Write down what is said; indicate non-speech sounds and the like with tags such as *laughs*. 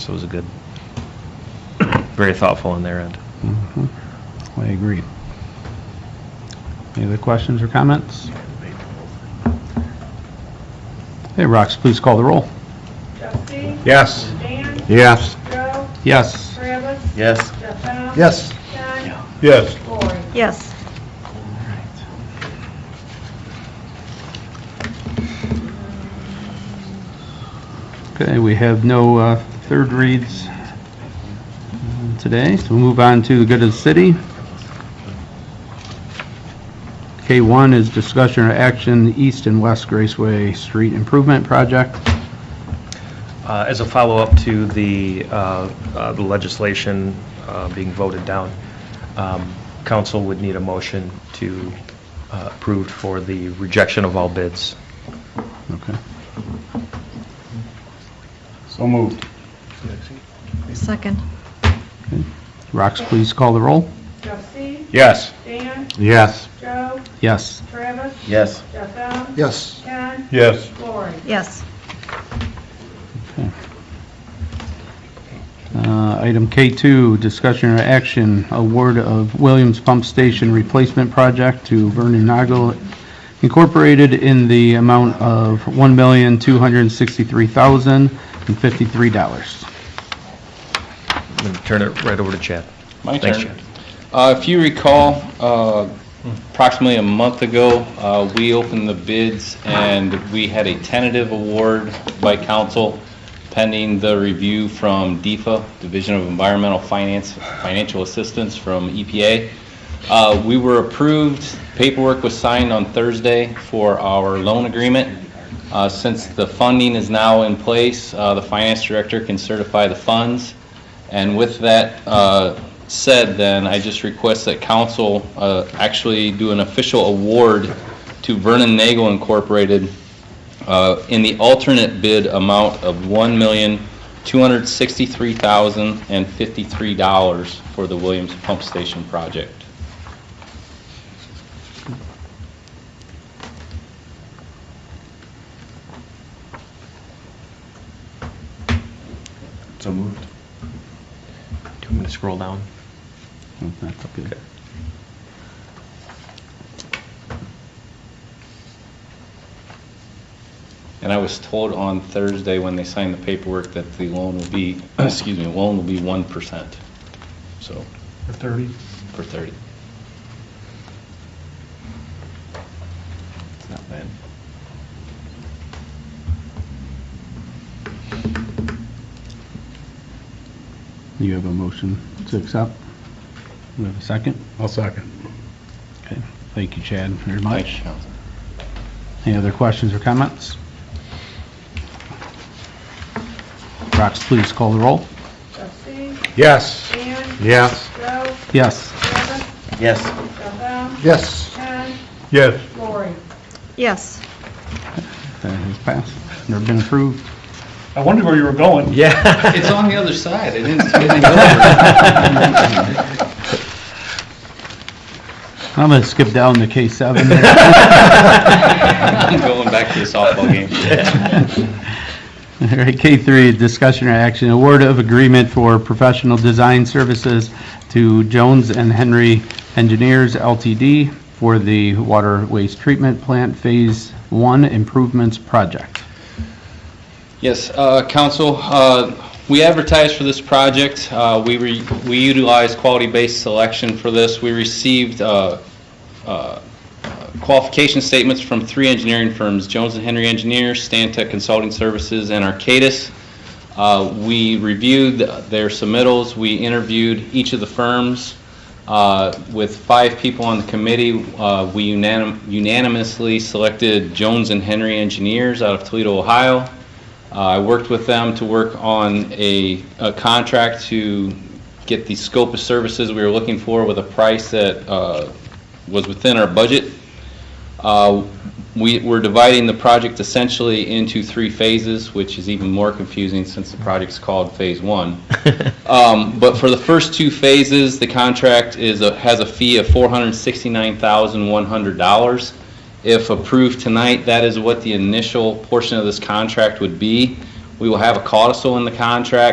so it was a good, very thoughtful on their end. Mm-hmm. I agree. Any other questions or comments? Hey, Rox, please call the roll. Trustee? Yes. Dan? Yes. Joe? Yes. Travis? Yes. Jeff Bell? Yes. John? Yes. Lori? Yes. Okay, we have no uh, third reads um, today, so we'll move on to the good of the city. K1 is discussion or action, East and West Graceway Street Improvement Project. Uh, As a follow-up to the uh, uh, the legislation uh, being voted down, um, council would need a motion to uh, approve for the rejection of all bids. Okay. So moved. Second. Rox, please call the roll. Trustee? Yes. Dan? Yes. Joe? Yes. Travis? Yes. Jeff Bell? Yes. John? Yes. Lori? Yes. Uh, Item K2, discussion or action, award of Williams Pump Station Replacement Project to Vernon Nagle Incorporated in the amount of $1,263,053. Turn it right over to Chad. My Thanks, turn. Chad. Uh, If you recall, uh, approximately a month ago, uh, we opened the bids and we had a tentative award by council pending the review from DEFA, Division of Environmental Finance, Financial Assistance from EPA. Uh, We were approved, paperwork was signed on Thursday for our loan agreement. Uh, Since the funding is now in place, uh, the finance director can certify the funds. And with that uh, said, then, I just request that council uh, actually do an official award to Vernon Nagel Incorporated uh, in the alternate bid amount of $1,263,053 for the Williams Pump Station project. So moved. Do you want me to scroll down? That's good. And I was told on Thursday, when they signed the paperwork, that the loan will be, *clears throat* excuse me, loan will be 1%, so, For 30. for 30. It's not bad. You have a motion to accept? We have a second? I'll second. Okay. Thank you, Chad, very Thank much. you, Council. Any other questions or comments? Rox, please call the roll. Trustee? Yes. Dan? Yes. Joe? Yes. Travis? Yes. Jeff Bell? Yes. John? Yes. Lori? Yes. That has Uh, passed, never been approved. I wondered where you were going. Yeah. It's on the other side, I didn't, I didn't go over. I'm going to skip down to K7 there. *laughs* I'm *laughs* going back to the softball game. All right, K3, discussion or action, award of agreement for professional design services to Jones and Henry Engineers LTD for the water waste treatment plant Phase 1 improvements project. Yes, uh, council, uh, we advertised for this project. Uh, We re- we utilized quality-based selection for this. We received uh, uh, qualification statements from three engineering firms, Jones and Henry Engineers, Stantec Consulting Services, and Arcadis. Uh, We reviewed their submittals, we interviewed each of the firms. Uh, With five people on the committee, uh, we unanim- unanimously selected Jones and Henry Engineers out of Toledo, Ohio. Uh, I worked with them to work on a, a contract to get the scope of services we were looking for with a price that uh, was within our budget. Uh, We, we're dividing the project essentially into three phases, which is even more confusing since the project's called Phase One. *laughs* Um, But for the first two phases, the contract is, a- has a fee of $469,100. If approved tonight, that is what the initial portion of this contract would be. We will have a codicil in the contract